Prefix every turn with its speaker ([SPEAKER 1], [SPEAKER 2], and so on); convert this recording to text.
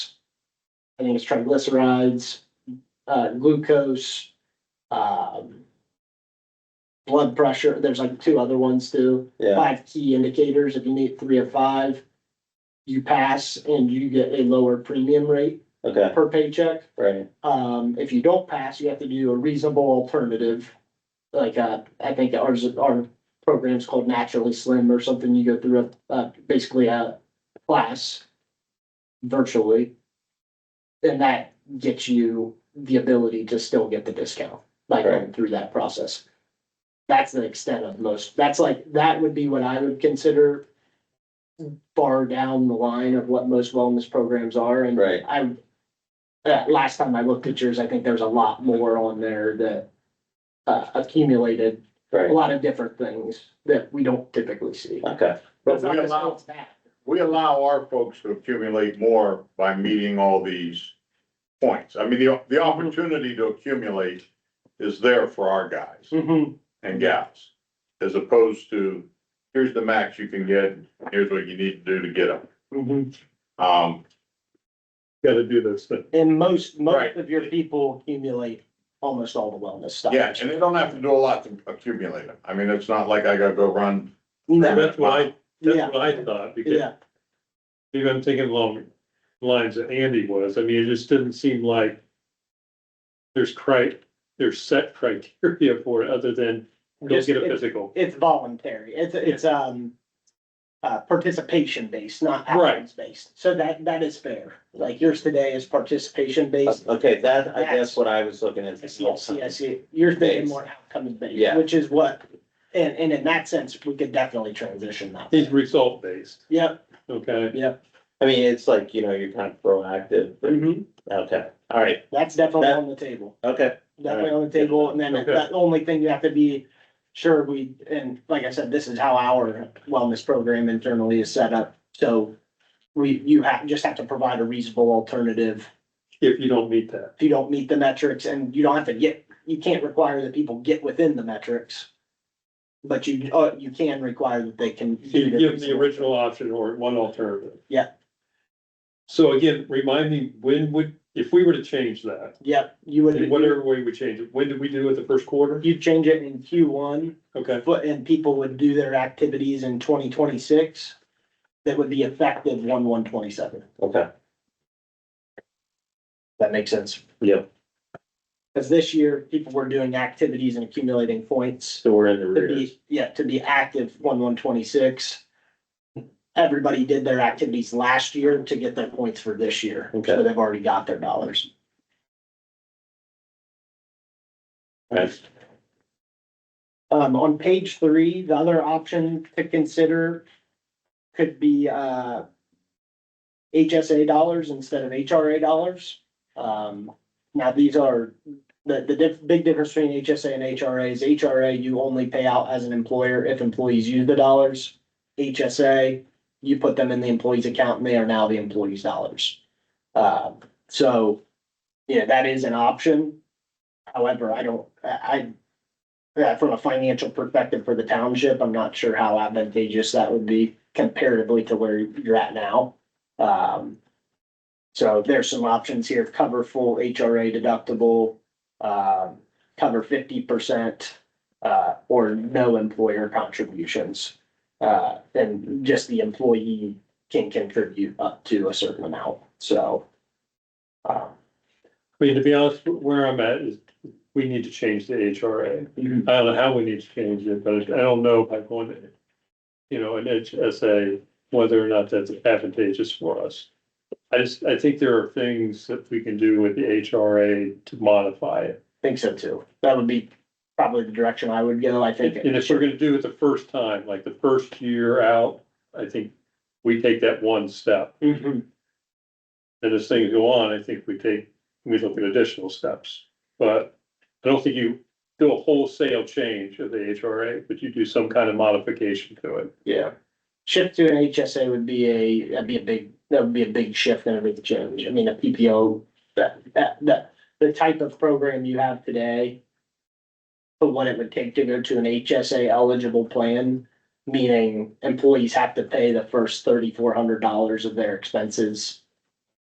[SPEAKER 1] I think it's triglycerides, uh, glucose, um, blood pressure. There's like two other ones too.
[SPEAKER 2] Yeah,
[SPEAKER 1] Five key indicators. If you meet three of five, you pass and you get a lower premium rate
[SPEAKER 2] okay,
[SPEAKER 1] per paycheck.
[SPEAKER 2] right,
[SPEAKER 1] Um, if you don't pass, you have to do a reasonable alternative. Like, uh, I think ours, our program's called Naturally Slim or something. You go through a, uh, basically a class virtually. And that gets you the ability to still get the discount by going
[SPEAKER 2] Right.
[SPEAKER 1] through that process. That's the extent of most, that's like, that would be what I would consider far down the line of what most wellness programs are and
[SPEAKER 2] right,
[SPEAKER 1] I, uh, last time I looked at yours, I think there's a lot more on there that uh, accumulated, a
[SPEAKER 2] right,
[SPEAKER 1] lot of different things that we don't typically see.
[SPEAKER 2] okay,
[SPEAKER 3] But we allow, we allow our folks to accumulate more by meeting all these points. I mean, the,
[SPEAKER 4] Mm-hmm.
[SPEAKER 3] the opportunity to accumulate is there for our
[SPEAKER 4] Mm-hmm.
[SPEAKER 3] guys
[SPEAKER 1] Mhm.
[SPEAKER 3] and gals. As opposed to, here's the max you can get, here's what you need to do to get them.
[SPEAKER 4] mm-hmm.
[SPEAKER 3] Um,
[SPEAKER 4] gotta do those things.
[SPEAKER 1] And most, most
[SPEAKER 3] Right.
[SPEAKER 1] of your people accumulate almost all the wellness stuff.
[SPEAKER 3] yeah, and they don't have to do a lot to accumulate them. I mean, it's not like I gotta go run.
[SPEAKER 4] So
[SPEAKER 1] No,
[SPEAKER 4] That's what I,
[SPEAKER 1] Yeah.
[SPEAKER 4] that's what I thought, because
[SPEAKER 1] yeah,
[SPEAKER 4] even I'm thinking along the lines that Andy was, I mean, it just didn't seem like there's cri, there's set criteria for it, other than go
[SPEAKER 1] Just-
[SPEAKER 4] get a
[SPEAKER 1] it's-
[SPEAKER 4] physical.
[SPEAKER 1] it's voluntary. It's, it's, um, uh, participation based, not
[SPEAKER 4] Right.
[SPEAKER 1] outcomes based. So that, that is fair. Like yours today is participation based.
[SPEAKER 2] okay, that, I guess what I was looking at.
[SPEAKER 1] I see, I see, I see. You're thinking
[SPEAKER 2] Base.
[SPEAKER 1] more outcome based,
[SPEAKER 2] Yeah.
[SPEAKER 1] which is what, and, and in that sense, we could definitely transition that.
[SPEAKER 4] He's result based,
[SPEAKER 1] Yep,
[SPEAKER 4] okay?
[SPEAKER 2] I mean, it's like, you know, you're kind of proactive, but-
[SPEAKER 1] Mm-hmm.
[SPEAKER 2] okay, all right,
[SPEAKER 1] that's definitely
[SPEAKER 2] That-
[SPEAKER 1] on the table,
[SPEAKER 2] okay,
[SPEAKER 1] definitely on the table, and then
[SPEAKER 4] Okay.
[SPEAKER 1] the only thing you have to be sure we, and like I said, this is how our wellness program internally is set up, so we, you have, just have to provide a reasonable alternative
[SPEAKER 4] If you don't meet that,
[SPEAKER 1] if you don't meet the metrics and you don't have to get, you can't require that people get within the metrics. But you, uh, you can require that they can.
[SPEAKER 4] you give them the original option or one alternative.
[SPEAKER 1] Yeah.
[SPEAKER 4] So again, remind me, when would, if we were to change that,
[SPEAKER 1] Yep, you
[SPEAKER 4] in
[SPEAKER 1] would,
[SPEAKER 4] whatever way we change it, when did we do it the first quarter?
[SPEAKER 1] you change it in Q one,
[SPEAKER 4] Okay,
[SPEAKER 1] but, and people would do their activities in twenty twenty-six. That would be effective one, one twenty-seven.
[SPEAKER 2] okay,
[SPEAKER 1] That makes sense.
[SPEAKER 2] Yep.
[SPEAKER 1] Cause this year, people were doing activities and accumulating points.
[SPEAKER 2] so we're in the
[SPEAKER 1] to
[SPEAKER 2] rear.
[SPEAKER 1] be, yeah, to be active one one twenty-six. Everybody did their activities last year to get their points for this year.
[SPEAKER 2] Okay.
[SPEAKER 1] So they've already got their dollars.
[SPEAKER 2] Right.
[SPEAKER 1] Um, on page three, the other option to consider could be, uh, HSA dollars instead of HRA dollars. Um, now these are, the, the diff, big difference between HSA and HRA is HRA, you only pay out as an employer if employees use the dollars. HSA, you put them in the employee's account and they are now the employee's dollars. Uh, so, yeah, that is an option. However, I don't, I, I, yeah, from a financial perspective for the township, I'm not sure how advantageous that would be comparatively to where you're at now. Um, so there's some options here, cover full HRA deductible, um, cover fifty percent, uh, or no employer contributions. Uh, and just the employee can contribute up to a certain amount, so. uh,
[SPEAKER 4] I mean, to be honest, where I'm at is, we need to change the HRA. I don't know how we need to change it, but I don't know if I want to, you know, an HSA, whether or not that's advantageous for us. I just, I think there are things that we can do with the HRA to modify it.
[SPEAKER 1] Think so too. That would be probably the direction I would go, I think.
[SPEAKER 4] And if we're gonna do it the first time, like the first year out, I think we take that one step.
[SPEAKER 1] Mhm.
[SPEAKER 4] And as things go on, I think we take, we look at additional steps. But I don't think you do a wholesale change of the HRA, but you do some kind of modification to it.
[SPEAKER 1] Yeah. Shift to an HSA would be a, that'd be a big, that would be a big shift and a big change. I mean, a PPO, that, that, that, the type of program you have today. But what it would take to go to an HSA eligible plan, meaning employees have to pay the first thirty-four hundred dollars of their expenses